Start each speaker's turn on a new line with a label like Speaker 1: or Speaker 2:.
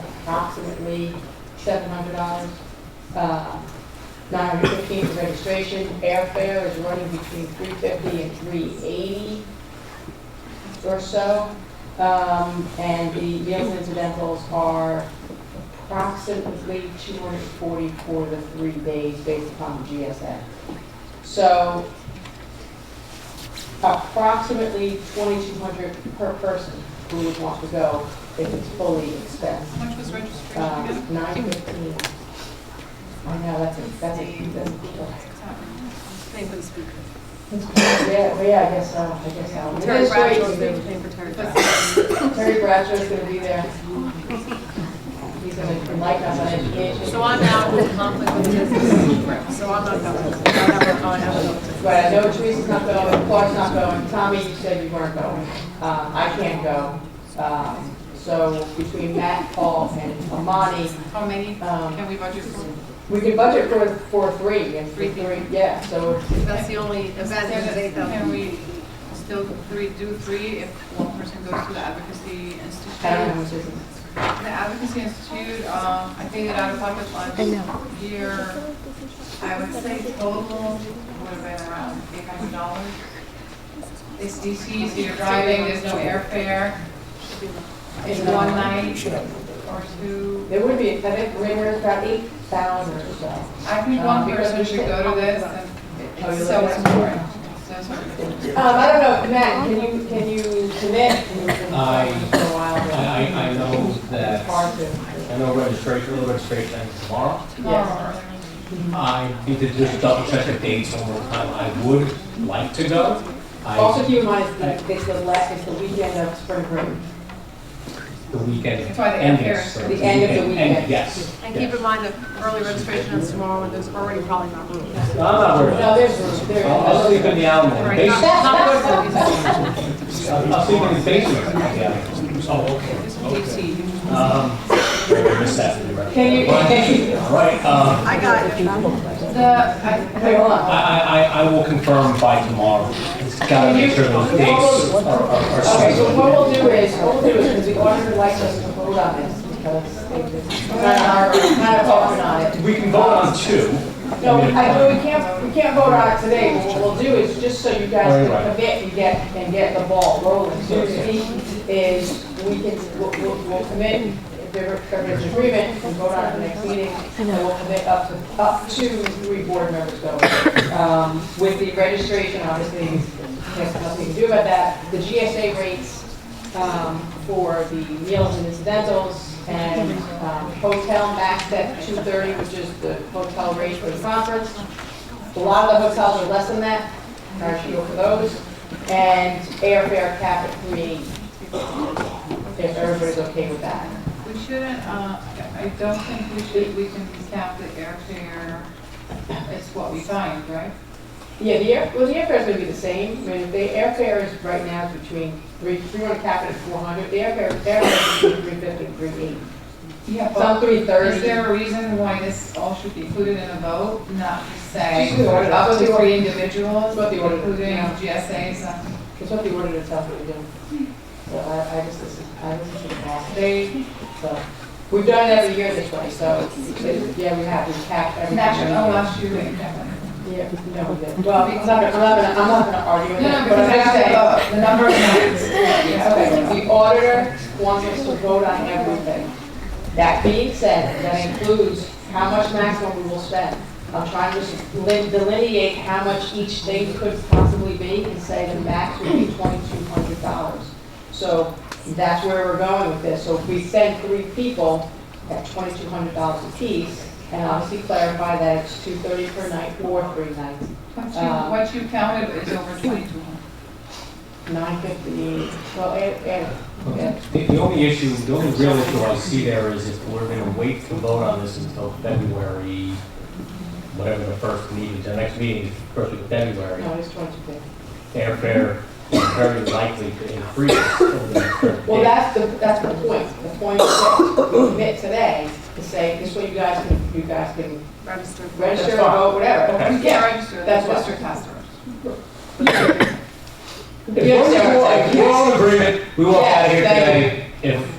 Speaker 1: approximately seven hundred dollars. Uh, Nine hundred fifteen for registration, airfare is running between three fifty and three eighty or so. Um, and the meals and incidentals are approximately two hundred forty for the three days based upon the GSA. So approximately 2,200 per person who would want to go if it's fully expensed.
Speaker 2: How much was registration
Speaker 1: Um,
Speaker 2: again?
Speaker 1: 915. I know, Oh, that's, a- that's, a- that's, a-
Speaker 3: Name for the speaker.
Speaker 1: yeah, but yeah, I guess, uh, I guess. uh,
Speaker 3: Terry Bradshaw's
Speaker 1: administration-
Speaker 3: name for Terry Bradshaw.
Speaker 2: Because-
Speaker 1: Terry Bradshaw's gonna be there. He's gonna enlighten us on education.
Speaker 3: So I'm out with conflict with business, so I'm not going. I have a- I have a-
Speaker 1: But I know Teresa's not going, Clark's not going, Tommy, you said you weren't going. Uh, I can't go. Um, So between Matt, Paul, and Amani,
Speaker 2: How many
Speaker 1: um,
Speaker 2: Oh, can we budget for?
Speaker 1: We could budget for, for three, and
Speaker 2: Three
Speaker 1: three,
Speaker 2: people.
Speaker 1: three, yeah, so,
Speaker 3: That's the only, that's
Speaker 2: Can we still three, do three if one person goes to the advocacy
Speaker 1: I don't know which
Speaker 2: institute?
Speaker 1: is,
Speaker 2: The advocacy institute, um, I think that out of pocket last year, I would say total would have been around eight hundred dollars. It's DC, so you're driving, there's no airfare. It's one night or two.
Speaker 1: there would be, I think, rumors about eight thousand or so.
Speaker 2: I think
Speaker 1: Um,
Speaker 2: one
Speaker 1: because
Speaker 2: person
Speaker 1: we
Speaker 2: should
Speaker 1: should-
Speaker 2: go to this, and
Speaker 1: Oh, you're
Speaker 2: it's so
Speaker 1: looking at-
Speaker 2: important, so important.
Speaker 1: Um, I don't know, Matt, can you, can you commit? You've been
Speaker 4: I-
Speaker 1: talking For a while,
Speaker 4: I,
Speaker 1: but
Speaker 4: I- I know
Speaker 1: It's
Speaker 4: that,
Speaker 1: hard to.
Speaker 4: I know registration, early registration ends tomorrow.
Speaker 1: Yes.
Speaker 4: I need to just double check the dates one more time. I would like to go.
Speaker 1: Also,
Speaker 4: I,
Speaker 1: keep in mind, it's the- it's the last, it's the weekend of spring break.
Speaker 4: the weekend
Speaker 2: That's why the
Speaker 4: ended,
Speaker 2: air-
Speaker 4: so.
Speaker 1: the end of the weekend.
Speaker 4: Yes.
Speaker 3: And keep in mind that early registration is tomorrow, and there's already probably not room.
Speaker 4: I'm not worried.
Speaker 1: No,
Speaker 4: I'll
Speaker 1: there's, room, there
Speaker 4: I'll
Speaker 1: is.
Speaker 4: sleep in the Alamo,
Speaker 3: Right, not- not good for business.
Speaker 4: I'll I'll sleep in the basement. Yeah. Oh, okay.
Speaker 2: This is DC.
Speaker 4: Um, I missed that.
Speaker 1: Can you, can you,
Speaker 4: Right, um,
Speaker 3: I got it.
Speaker 2: The, I,
Speaker 1: wait, hold
Speaker 4: I,
Speaker 1: on.
Speaker 4: I, I- I will confirm by tomorrow. Gotta make sure those dates are, are- are
Speaker 1: Okay, so
Speaker 4: scheduled.
Speaker 1: what we'll do is, what we'll do is, because the auditor likes us to hold on this, because they just, kind of, kind of talking on it.
Speaker 4: We can vote on two.
Speaker 1: No, I know we can't, we can't vote on it today, but what we'll do is, just so you guys
Speaker 4: Right,
Speaker 1: can
Speaker 4: right.
Speaker 1: commit and get, and get the ball rolling, so to speak, is we can, we'll, we'll, we'll commit, if there if there's agreement, we can vote on it at the next meeting, and we'll commit up to, up to three board members going. Um, with the registration, obviously, there's nothing to do about that, the GSA rates, um, for the meals and incidentals and, um, hotel max at two thirty, which is the hotel rate for the conference. A lot of the hotels are less than that, our shield for those, and airfare cap at three eighty. If everybody's okay with that.
Speaker 2: we shouldn't, uh, I don't think we should, we can cap the airfare, it's what we find, right?
Speaker 1: Yeah, the air, well, the airfare's gonna be the same, I mean, the airfare is right now is between three, three hundred cap it at four hundred, the airfare, airfare is between three fifty and three eighty.
Speaker 2: Yeah,
Speaker 1: Some
Speaker 2: but
Speaker 1: three
Speaker 2: is
Speaker 1: thirty.
Speaker 2: there a reason why this all should be included in a vote, not to say
Speaker 1: Just do it.
Speaker 2: up to three individuals,
Speaker 1: What the order-
Speaker 2: including
Speaker 1: yeah.
Speaker 2: GSAs? uh,
Speaker 1: It's what the order to tell me to do. So I, I just, this is, I listen to the boss.
Speaker 2: They,
Speaker 1: so. We've done it every year this way, so, it's- yeah, we have, we cap every.
Speaker 2: national, oh, last year, they kept it.
Speaker 1: Yeah, no, we didn't. Well, I'm not, I'm not gonna, I'm not gonna argue with
Speaker 2: No, no,
Speaker 1: that, but
Speaker 2: because
Speaker 1: I'm
Speaker 2: I
Speaker 1: just saying.
Speaker 2: got the, the number of nights. Yeah,
Speaker 1: Okay, the auditor wants us to vote on everything. That being said, that includes how much maximum we will spend. I'm trying to s- delin- delineate how much each thing could possibly be and say the max would be twenty-two hundred dollars. So that's where we're going with this. So if we send three people at twenty-two hundred dollars apiece, and obviously clarify that it's two thirty per night or three nights,
Speaker 2: What you,
Speaker 1: Um,
Speaker 2: what you counted is over twenty-two hundred.
Speaker 1: nine fifty, well, eh, and, and,
Speaker 4: The the only issue, the only real issue I see there is if we're going to wait to vote on this until February, whatever the first meeting, the next meeting is first of February,
Speaker 1: no, it's twenty-two fifty.
Speaker 4: airfare is very likely to increase over the current
Speaker 1: Well,
Speaker 4: date.
Speaker 1: that's the, that's the point. The point is that we commit today to say, this way you guys can, you guys can
Speaker 3: Register.
Speaker 1: register or
Speaker 4: That's fine.
Speaker 1: vote, whatever.
Speaker 4: Okay.
Speaker 2: You can't register, that's
Speaker 1: That's what-
Speaker 2: district has to register.
Speaker 4: If we're all- if we're all in agreement, we walk out of here
Speaker 1: Yes, thank
Speaker 4: today. If